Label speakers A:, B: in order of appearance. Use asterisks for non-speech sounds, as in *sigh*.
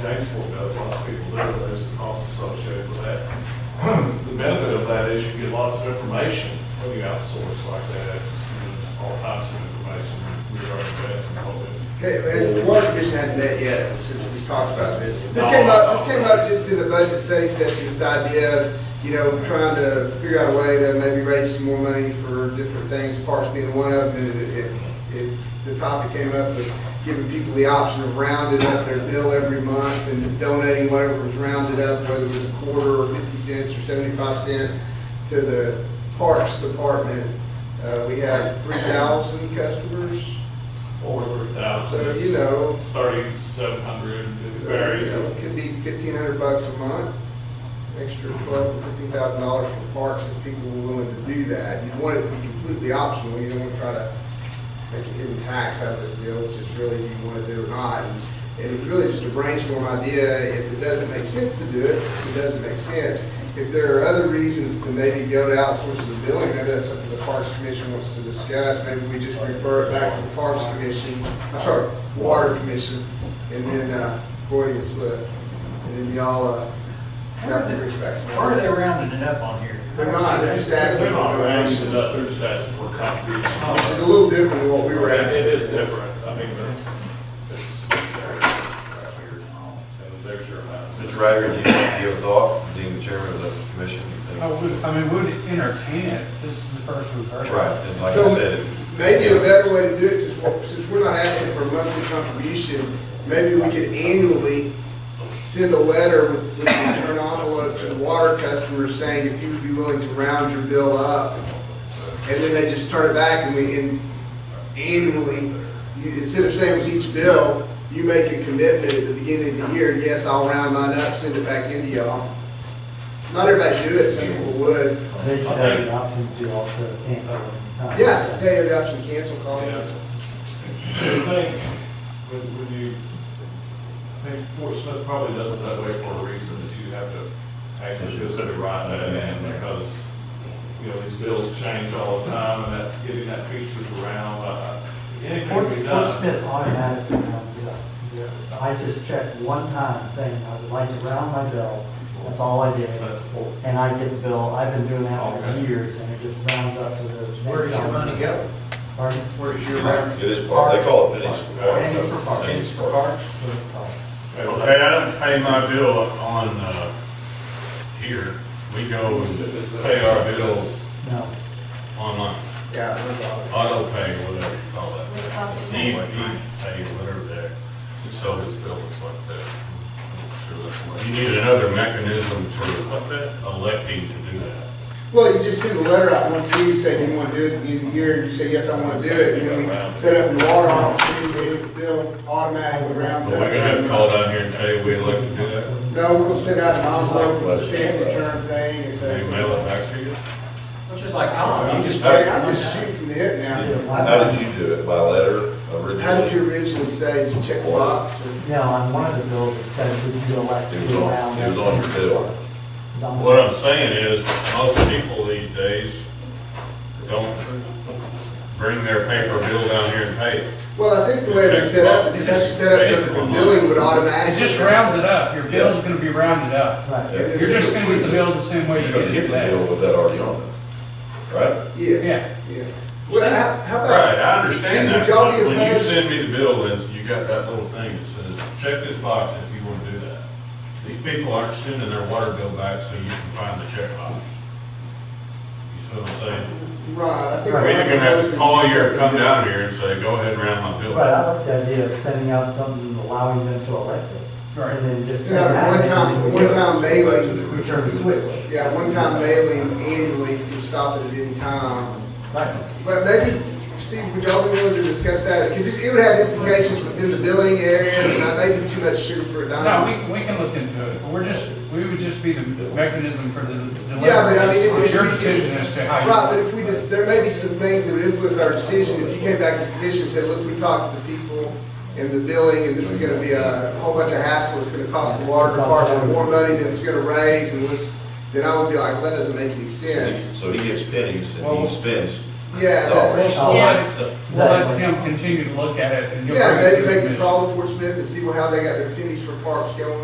A: Jamesport does, lots of people do, there's the cost associated with that. *clears throat* The benefit of that is you get lots of information when you outsource like that, you know, all types of information regarding that and all that.
B: Okay, has the water commission had met yet, since we talked about this? This came up, this came up just in a budget study session, this idea of, you know, trying to figure out a way to maybe raise some more money for different things, parks being one of them, and it, it- it, the topic came up of giving people the option of rounding up their bill every month and donating whatever was rounded up, whether it was a quarter or fifty cents or seventy-five cents to the parks department. Uh, we have three thousand customers,
A: Or three thousand,
B: so, you
A: it's
B: know,
A: thirty-seven hundred, it varies.
B: you know, it Could be fifteen hundred bucks a month, extra twelve to fifteen thousand dollars for parks if people were willing to do that. You want it to be completely optional, you don't want to try to make a hidden tax out of this deal, it's just really do you want to do it or not. And it was really just a brainstorm idea, if it doesn't make sense to do it, it doesn't make sense. If there are other reasons to maybe go to outsourcing the billing, maybe that's something the Parks Commission wants to discuss, maybe we just refer it back to the Parks Commission, I'm sorry, Water Commission, and then, uh, Freudian slip, and then y'all, uh, have to reach back.
C: Why are they rounding it up on here?
B: They're not, they're just asking.
A: They're not
B: for
A: rounding
B: donations.
A: it up, they're just asking for
B: Which is a
A: contributions.
B: little different than what Oh, we were asking.
A: It is different, I mean, but it's, it's there, right here. And there's your amount.
D: Mr. Ryder, do you give thought, being the chairman of the commission? you think?
E: I would, I mean, would entertain it, this is the first we've heard. of it.
D: Right, and like I
B: So,
D: said.
B: Maybe a better way to do it, since, we're- since we're not asking for a monthly contribution, maybe we could annually send a letter with, with return envelopes to the water customers saying if you would be willing to round your bill up. And then they just turn it back and we, and annually, you, instead of saying with each bill, you make a commitment at the beginning of the year, yes, I'll round mine up, send it back into y'all. Not everybody do it, some people would.
F: They should have the option to also cancel. it.
B: Yeah, they have the option to cancel, call it
A: Yeah.
B: cancel.
A: Do you think, when, when you, I think Fort Smith probably does it that way for a reason, that you have to actually consider writing that in, because, you know, these bills change all the time, and that, getting that featured around, uh, anything
F: Fort
A: we
F: Fort
A: done.
F: Smith automatically rounds it up. I just checked one time saying I would like to round my bill, that's all I did.
A: That's Fort.
F: And I get the bill, I've been doing that for
A: Okay.
F: years, and it just rounds up to the. next
C: Where does your money
F: dollar.
C: go?
F: Pardon?
C: Where does your money?
D: It is part, they call it pennies.
F: Pennies for parks.
D: Pennies for parks.
F: Parks, what it's called.
G: Okay, I don't pay my bill on, uh, here. We go and pay our bills
F: No,
G: online,
B: Yeah, that's all.
G: auto pay, whatever you call it.
H: Would it cost you
G: E, E
H: more?
G: pay, whatever that.
A: So his bill looks like that. I'm Sure, that's what.
G: You need another mechanism for electing to do that.
B: Well, you just send a letter out once a year, you say you want to do it, you year, you say, yes, I want to do it, and then we set up in the water office, and we bill automatically
G: But
B: rounds
G: we're
B: up.
G: gonna have to call down here and tell you we elect to do that.
B: No, we'll send out an envelope with a stamp return thing, and
G: They
B: say,
G: mail it back to you.
C: It's just like Tom,
B: I'm
C: you
B: just,
C: just.
B: I'm just shooting from the hip
D: How
B: now.
D: did you do it? By letter originally?
B: How did you originally say, did you check the box? or-
F: no, on one of the bills, it says would you elect
D: It was
F: to
D: on-
F: round.
D: it was
F: up
D: on
F: to
D: your bill.
F: parks? It's on-
G: What I'm saying is, most people these days don't bring their paper bill down here and pay it.
B: Well, I think the way it was set up, is you have to set up so that the billing would automatically.
E: It just rounds it up, your bill's gonna be rounded up.
F: Right.
D: Yeah.
E: You're just gonna get the bill the same way you
D: You're gonna
E: get
D: get
E: it
D: the bill
E: back.
D: with that already on it, right?
B: Yeah, yeah. Well, how- how about?
G: Right, I
B: Steve,
G: understand that.
B: Would y'all be
G: When you
B: opposed?
G: send me the bill, then you got that little thing that says, check this box if you want to do that. These people aren't sending their water bill back so you can find the check box. You see what I'm saying?
B: Right, I think.
G: We're either gonna have to call you or come down here and say, go ahead and round my bill.
F: Right,
G: back."
F: I like the idea of sending out something allowing them to elect it.
E: Right.
F: And then just.
B: Send out
F: send
B: one
F: that
B: time-
F: and
B: one time mailing.
D: To the original.
F: Return the switch.
B: Yeah, one-time mailing annually, you can stop it at any time.
F: Right.
B: But maybe, Steve, would y'all be willing to discuss that? Because it it would have implications within the billing areas, and I think too much sugar for a
E: No,
B: dime.
E: we, we can look into it, but we're just, we would just be the mechanism for the delivery.
B: Yeah, but I mean, if-
E: It's your
B: if-
E: decision as to how you.
B: Right, but if we just, there may be some things that would influence our decision. If you came back as a commission and said, look, we talked to the people in the billing, and this is gonna be a whole bunch of hassle, it's gonna cost the water department more money than it's gonna raise, and this, then I would be like, well, that doesn't make any sense.
D: So he gets pennies and
E: Well-
D: he spends
B: Yeah, that-
D: dollars.
E: We'll let, we'll let
F: Exactly.
E: Tim continue to look at it and. you'll
B: yeah,
E: bring it to
B: maybe
E: the
B: they can
E: commission.
B: call the Fort Smith and see how they got their pennies for parks going